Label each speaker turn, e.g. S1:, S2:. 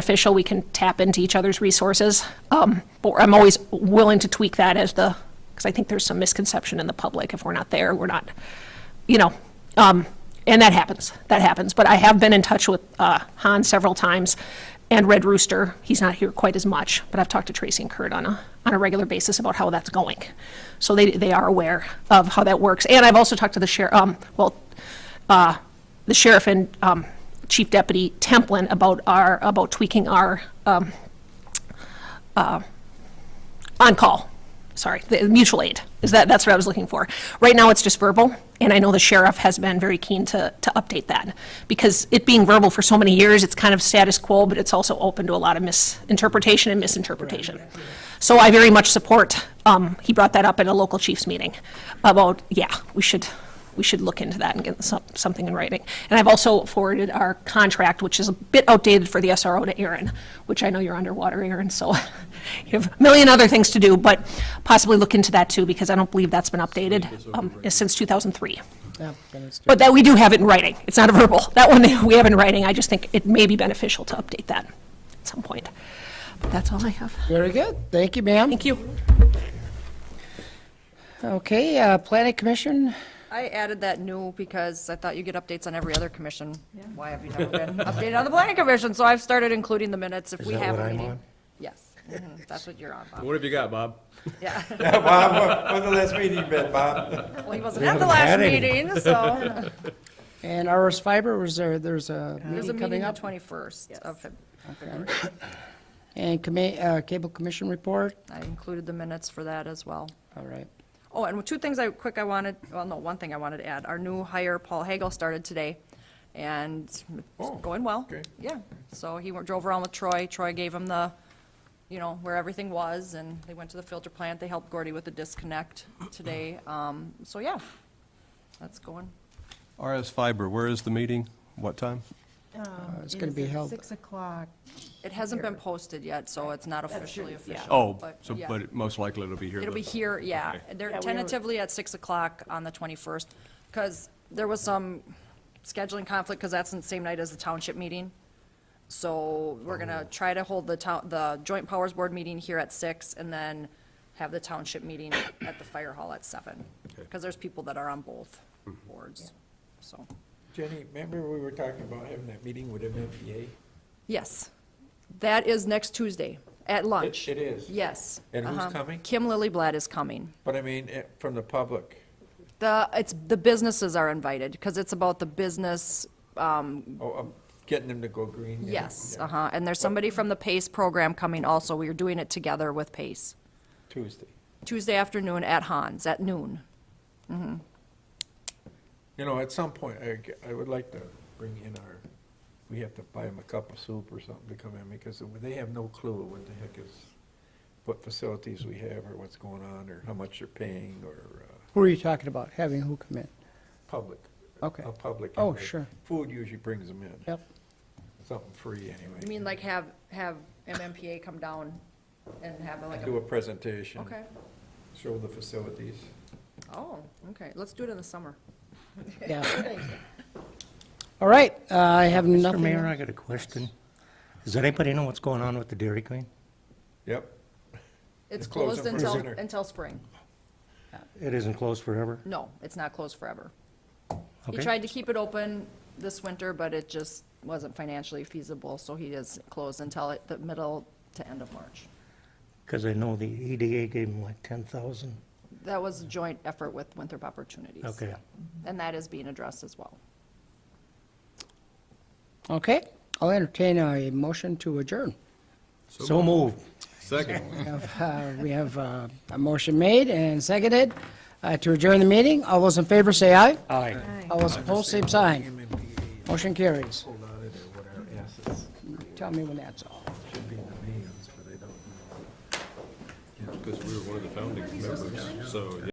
S1: official, we can tap into each other's resources. Um, But I'm always willing to tweak that as the, because I think there's some misconception in the public, if we're not there, we're not, you know, um, and that happens, that happens. But I have been in touch with uh, Han several times, and Red Rooster, he's not here quite as much, but I've talked to Tracy and Kurt on a, on a regular basis about how that's going. So they, they are aware of how that works. And I've also talked to the sheriff, um, well, uh, the sheriff and um, Chief Deputy Templin about our, about tweaking our um, uh, on-call, sorry, the mutual aid, is that, that's what I was looking for. Right now, it's just verbal, and I know the sheriff has been very keen to, to update that, because it being verbal for so many years, it's kind of status quo, but it's also open to a lot of misinterpretation and misinterpretation. So I very much support, um, he brought that up at a local chiefs meeting, about, yeah, we should, we should look into that and get some, something in writing. And I've also forwarded our contract, which is a bit outdated for the SRO to Aaron, which I know you're underwater, Aaron, so you have a million other things to do, but possibly look into that too, because I don't believe that's been updated um, since 2003.
S2: Yeah, then it's true.
S1: But that, we do have it in writing. It's not a verbal. That one, we have in writing. I just think it may be beneficial to update that at some point. But that's all I have.
S2: Very good. Thank you, ma'am.
S1: Thank you.
S2: Okay, uh, Planning Commission,
S3: I added that new because I thought you get updates on every other commission. Why have you never been updated on the planning commission? So I've started including the minutes if we
S4: that
S3: have
S4: what
S3: a
S4: I'm
S3: meeting.
S4: on?
S3: Yes, Mhm, that's what you're on, Bob.
S5: What have you got, Bob?
S3: Yeah,
S4: Bob, when's the last meeting you been, Bob?
S3: well, he wasn't at the last
S4: had any.
S3: meeting, so.
S2: and RS Fiber, was there, there's a
S3: There's a
S2: meeting
S3: meeting
S2: coming
S3: the
S2: up?
S3: 21st of Feb- February.
S2: And commi- uh, Cable Commission report,
S3: I included the minutes for that as well.
S2: all right.
S3: Oh, and two things I, quick I wanted, well, no, one thing I wanted to add. Our new hire, Paul Hagel, started today, and it's going well.
S4: okay.
S3: Yeah, so he wa- drove around with Troy. Troy gave him the, you know, where everything was, and they went to the filter plant. They helped Gordy with the disconnect today. Um, So, yeah, that's going.
S5: RS Fiber, where is the meeting? What time?
S2: Uh,
S3: Um,
S2: it's gonna be held-
S6: Six o'clock.
S3: It hasn't been posted yet, so it's not officially official.
S5: Oh, so,
S3: yeah.
S5: but it- most likely it'll be here.
S3: It'll
S5: though.
S3: be here, yeah. They're tentatively at 6 o'clock on the 21st, because there was some scheduling conflict, because that's the same night as the township meeting. So we're going
S4: Oh.
S3: to try to hold the town, the joint powers board meeting here at 6, and then have the township meeting at the fire hall at 7, because there's people that are on both
S4: Mm-hmm.
S3: boards, so.
S4: Jenny, remember we were talking about having that meeting with MMPA?
S3: Yes, that is next Tuesday, at lunch.
S4: it is.
S3: Yes.
S4: And who's
S3: uh-huh.
S4: coming?
S3: Kim Lillyblad is coming.
S4: But I mean, eh, from the public.
S3: The, it's, the businesses are invited, because it's about the business, um,
S4: Oh, I'm getting them to go green. yeah.
S3: yes,
S4: Yeah.
S3: uh-huh, and there's somebody from the PACE E program coming also, we are doing it together with PACE.
S4: Tuesday.
S3: E. Tuesday afternoon at Hans, at noon.
S4: You know, at some point, I, g- I would like to bring in our, we have to buy them a cup of soup or something to come in because they have no clue what the heck is, what facilities we have or what's going on or how much they're paying or, uh,
S2: Who are you talking about, having who come in?
S4: public.
S2: Okay.
S4: A public.
S2: Oh,
S4: invite.
S2: sure.
S4: Food usually brings them in.
S2: Yep,
S4: Something free anyway.
S3: You mean like have, have MMPA come down and have like
S4: Do
S3: a,
S4: a presentation.
S3: okay,
S4: Show the facilities.
S3: oh, okay, let's do it in the summer.
S2: yeah. All right, uh, I have
S7: Mr.
S2: nothing.
S7: Mayor, I got a question. Does anybody know what's going on with the Dairy Queen?
S4: Yep.
S3: It's
S4: They're
S3: closed
S4: closing for
S3: until,
S4: dinner.
S3: until spring,
S7: It isn't closed forever?
S3: no, it's not closed forever. He
S7: Okay.
S3: tried to keep it open this winter, but it just wasn't financially feasible, so he is closed until it- the middle to end of March.
S7: Because I know the EDA gave them like 10,000.
S3: That was a joint effort with Winthrop Opportunities.
S7: Okay.
S3: And that is being addressed as well.
S2: Okay, I'll entertain a motion to adjourn.
S7: So moved.
S5: Second.
S2: Uh, We have uh, a motion made and seconded uh, to adjourn the meeting. All those in favor say aye.
S7: Aye.
S2: All those opposed, same sign. Motion carries.
S4: Hold on to their, what our assets
S2: Tell me when that's all.
S4: should be in the names, but they don't.
S5: Because we were one of the founding members, so.